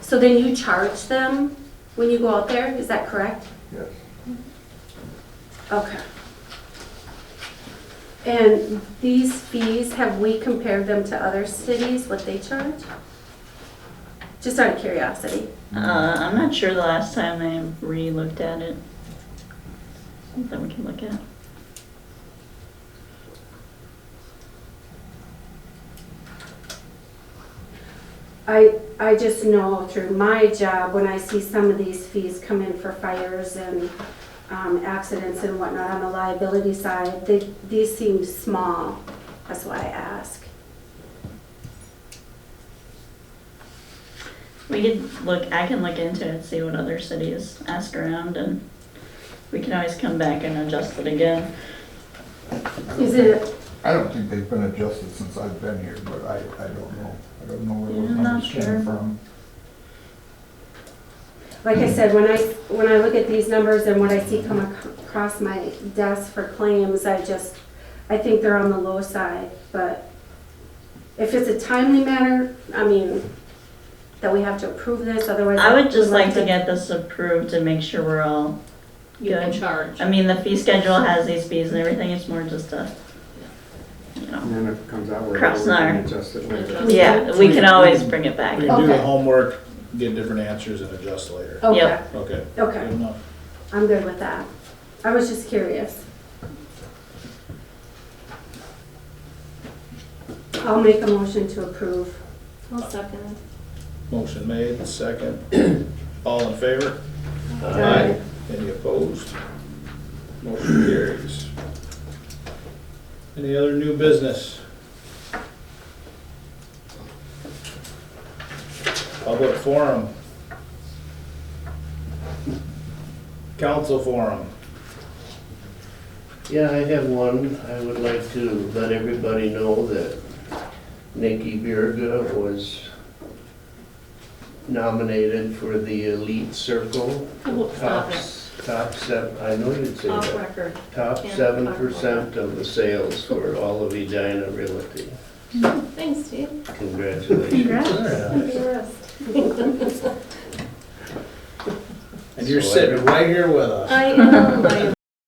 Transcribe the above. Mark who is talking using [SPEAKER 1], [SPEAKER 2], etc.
[SPEAKER 1] So then you charge them when you go out there, is that correct?
[SPEAKER 2] Yes.
[SPEAKER 1] Okay. And these fees, have we compared them to other cities, what they charge? Just out of curiosity.
[SPEAKER 3] Uh, I'm not sure the last time I re-looked at it. Something we can look at.
[SPEAKER 1] I, I just know through my job, when I see some of these fees come in for fires and um, accidents and whatnot on the liability side, they, these seem small. That's why I ask.
[SPEAKER 3] We could look, I can look into it, see what other cities ask around and we can always come back and adjust it again.
[SPEAKER 1] Is it,
[SPEAKER 2] I don't think they've been adjusted since I've been here, but I, I don't know. I don't know where
[SPEAKER 3] Yeah,
[SPEAKER 2] those
[SPEAKER 3] I'm not
[SPEAKER 2] numbers
[SPEAKER 3] sure.
[SPEAKER 2] came from.
[SPEAKER 1] like
[SPEAKER 3] Hmm.
[SPEAKER 1] I said, when I, when I look at these numbers and what I see come ac- across my desk for claims, I just, I think they're on the low side, but if it's a timely matter, I mean, that we have to approve this, otherwise.
[SPEAKER 3] I would just
[SPEAKER 1] we'll have
[SPEAKER 3] like to get this approved to make sure we're all
[SPEAKER 4] You can
[SPEAKER 3] good.
[SPEAKER 4] charge.
[SPEAKER 3] I mean, the fee schedule has these fees and everything, it's more just a, you know.
[SPEAKER 5] And then if it comes out, we're
[SPEAKER 3] Cross
[SPEAKER 5] we can
[SPEAKER 3] our-
[SPEAKER 5] adjust it later.
[SPEAKER 3] Yeah, we can always bring it back.
[SPEAKER 6] We can do the
[SPEAKER 1] Okay.
[SPEAKER 6] homework, get different answers and adjust later.
[SPEAKER 1] Okay,
[SPEAKER 3] Yep.
[SPEAKER 6] Okay,
[SPEAKER 1] okay.
[SPEAKER 6] good enough.
[SPEAKER 1] I'm good with that. I was just curious. I'll make a motion to approve.
[SPEAKER 4] I'll second.
[SPEAKER 6] Motion made, second. All in favor? Any opposed? Motion carries. Any other new business? Public forum. Council forum.
[SPEAKER 7] Yeah, I have one. I would like to let everybody know that Nikki Birga was nominated for the Elite Circle.
[SPEAKER 4] Oh, stop
[SPEAKER 7] Top,
[SPEAKER 4] it.
[SPEAKER 7] s- top seven, I know you'd say
[SPEAKER 4] Off
[SPEAKER 7] that.
[SPEAKER 4] record.
[SPEAKER 7] Top
[SPEAKER 4] Yeah.
[SPEAKER 7] seven percent of the sales for all of Edina Realty.
[SPEAKER 4] Thanks, Steve.
[SPEAKER 7] Congratulations.
[SPEAKER 6] And
[SPEAKER 4] Yes.
[SPEAKER 6] you're sitting right here with us.
[SPEAKER 4] I am, I am